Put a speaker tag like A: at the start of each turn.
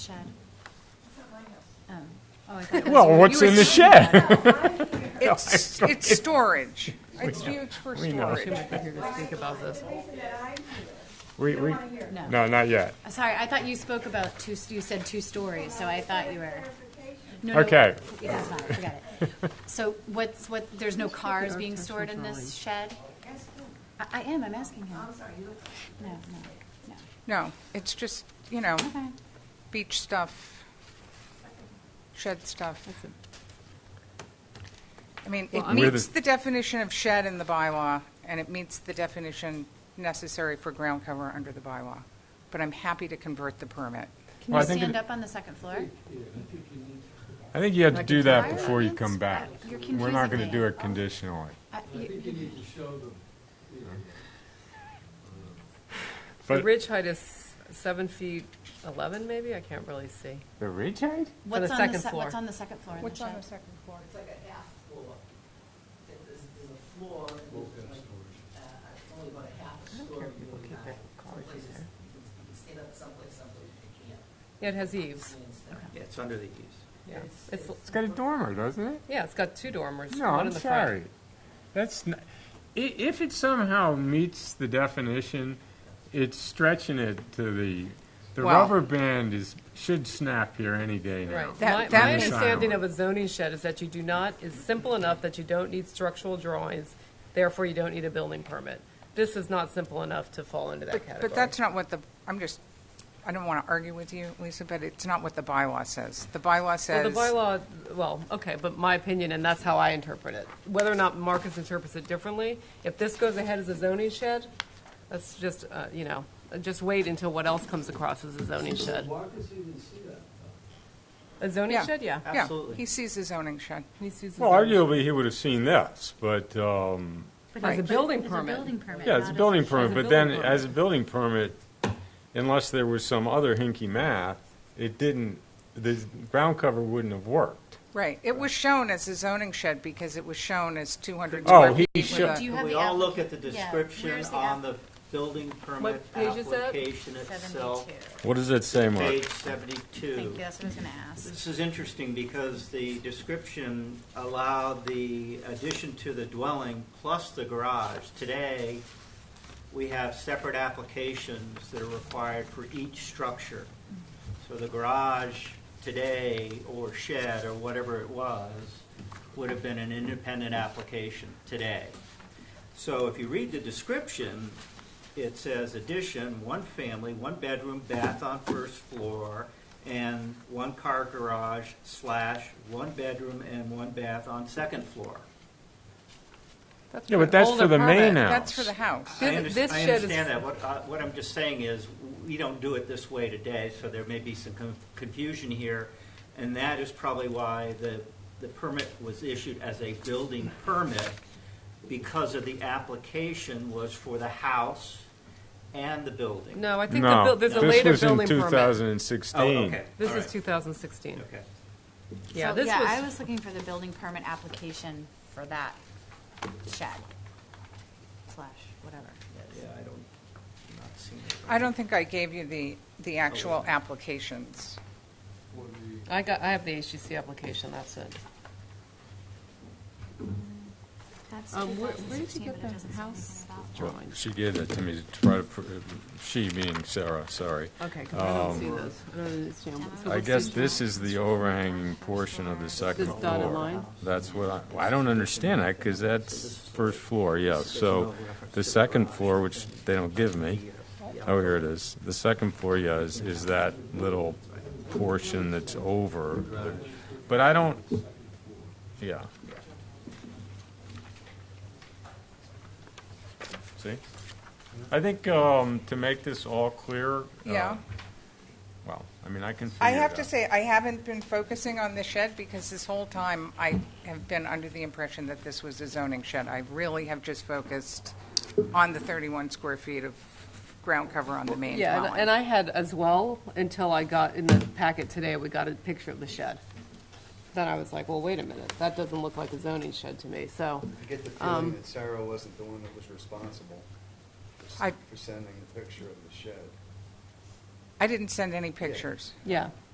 A: Shed. Oh, oh, I thought it was.
B: Well, what's
C: You
B: in the
C: assume-
B: shed?
C: It's, it's storage. It's used for
B: We know.
C: storage.
B: We, we,
A: No.
B: no, not yet.
A: Uh, Sorry, I thought you spoke about two, you said two stories, so I thought you were. No, no,
B: Okay.
A: It does not, forget it. So what's, what, there's no cars being stored in this shed? I, I am, I'm asking him. I'm sorry, you. No, no, no,
C: No, it's just, you know,
A: okay.
C: beach stuff, shed stuff. I mean, it
B: We're the-
C: meets the definition of shed in the bylaw, and it meets the definition necessary for ground cover under the bylaw. But I'm happy to convert the permit.
A: Can
B: Well,
A: you
B: I think
A: stand
B: it-
A: up on the second floor?
B: I think you have to do that
A: tire
B: before you
A: irons?
B: come back.
A: You're
B: We're
A: confusing
B: not going
A: me.
B: to do it conditionally.
A: I-
D: I
A: you-
D: think you need to show them. you know,
B: But-
E: The ridge height is seven feet eleven, maybe? I can't really see.
B: The ridge height?
A: What's on the,
E: second
A: se-
E: floor.
A: what's on the second floor in the shed?
C: second floor?
F: It's like a half floor. It- There's, there's a floor, and
D: both
F: there's
D: have
F: like,
D: storage.
F: uh, only about a half a story. really high. Someplace it's- you can- You can stand up someplace, someplace you can't.
E: Yeah, it has eaves,
F: And stuff.
G: Yeah, it's under the eaves.
E: yeah. It's,
B: It's got a dormer, doesn't it?
E: yeah, it's got two dormers,
B: No,
E: one
B: I'm
E: in the front.
B: sorry. That's, n- i- if it somehow meets the definition, it's stretching it to the, the
C: Well-
B: rubber band is, should snap here any day now.
E: Right.
C: That-
E: My,
C: that
E: my
C: is-
E: understanding of a zoning shed is that you do not, is simple enough that you don't need structural drawings, therefore you don't need a building permit. This is not simple enough to fall into that category.
C: But that's not what the, I'm just, I don't want to argue with you, Lisa, but it's not what the bylaw says. The bylaw
E: Well,
C: says.
E: the bylaw, well, okay, but my opinion, and that's how I interpret it. Whether or not Marcus interprets it differently, if this goes ahead as a zoning shed, that's just, uh, you know, just wait until what else comes across as a zoning shed.
D: Walkers even see that.
E: A zoning
C: Yeah.
E: shed, yeah.
C: Yeah,
G: Absolutely.
C: he sees the zoning shed.
E: He sees the
B: Well,
E: zoning-
B: arguably, he would have seen this, but, um,
A: But
C: Right.
A: it's-
C: It's
E: a building
A: it's
E: permit.
A: building permit,
B: Yeah, it's a
A: not
B: building
E: a
B: permit, but then,
E: building
B: as a building permit, unless there was some other hinky math, it didn't, the ground cover wouldn't have worked.
C: Right. It was shown as a zoning shed because it was shown as 200
B: Oh,
C: square
B: he
C: feet. with
B: sho-
C: a-
A: Do you
G: Can
A: have
G: we
A: the
G: all look at the
A: applica- yeah,
G: description
A: where's the
G: on
A: app-
G: the building permit
E: What page is that?
G: application itself?
A: 72.
B: What does that say,
G: Page
A: Thank you,
G: seventy-two.
A: that's what I was going to ask.
G: This is interesting because the description allowed the addition to the dwelling plus the garage. Today, we have separate applications that are required for each structure. So the garage today, or shed, or whatever it was, would have been an independent application today. So if you read the description, it says addition, one family, one bedroom, bath on first floor, and one car garage slash one bedroom and one bath on second floor.
C: That's
B: Yeah, but that's
C: older
B: for the main
C: permit.
B: house.
C: That's for the house.
G: I
E: Thi-
G: underst-
E: this
G: I
E: shed is-
G: understand that. What, I- what I'm just saying is, we don't do it this way today, so there may be some con- confusion here. And that is probably why the, the permit was issued as a building permit, because of the application was for the house and the building.
E: No, I think the,
B: No,
E: buil- there's a later
B: this was in
E: building permit.
G: Oh,
B: 2016.
G: okay.
E: This
G: All
E: is
G: right.
E: 2016.
G: Okay.
E: Yeah,
A: So,
E: this
A: Yeah, I
E: was,
A: was looking for the building permit application for that shed slash whatever.
G: Yeah, I don't, I'm not seeing it.
C: I don't think I gave you the, the actual applications.
D: What do you-
E: I got, I have the HGC application, that's it.
A: That's
E: Um, where- where did
A: 2016,
E: you get
A: but it
E: the
A: doesn't say
E: house?
A: anything about-
B: Well, She gave that to me, to try to pr- she being Sarah, sorry.
E: Okay, because I don't see this. I don't understand. what- so
B: Um, I
E: what's
B: guess
E: the-
B: this is the overhanging portion of the second
E: This dotted
B: floor.
E: line?
B: That's what I, well, I don't understand that, because that's first floor, yeah. So the second floor, which they don't give me, oh, here it is. The second floor, yeah, is, is that little portion that's over. But I don't, yeah. See? I think um, to make this all clear. uh,
E: Oh,
C: Yeah.
B: Well, I mean, I can figure it
C: I have to
B: out.
C: say, I haven't been focusing on the shed because this whole time I have been under the impression that this was a zoning shed. I really have just focused on the 31 square feet of ground cover on the main
E: Yeah, and- and
C: dwelling.
E: I had as well, until I got, in the packet today, we got a picture of the shed. Then I was like, well, wait a minute, that doesn't look like a zoning shed to me, so,
H: I get the
E: Um,
H: feeling that Sarah wasn't the one that was responsible for s-
C: I-
H: for sending the picture of the shed.
C: I didn't send any pictures.
E: yeah.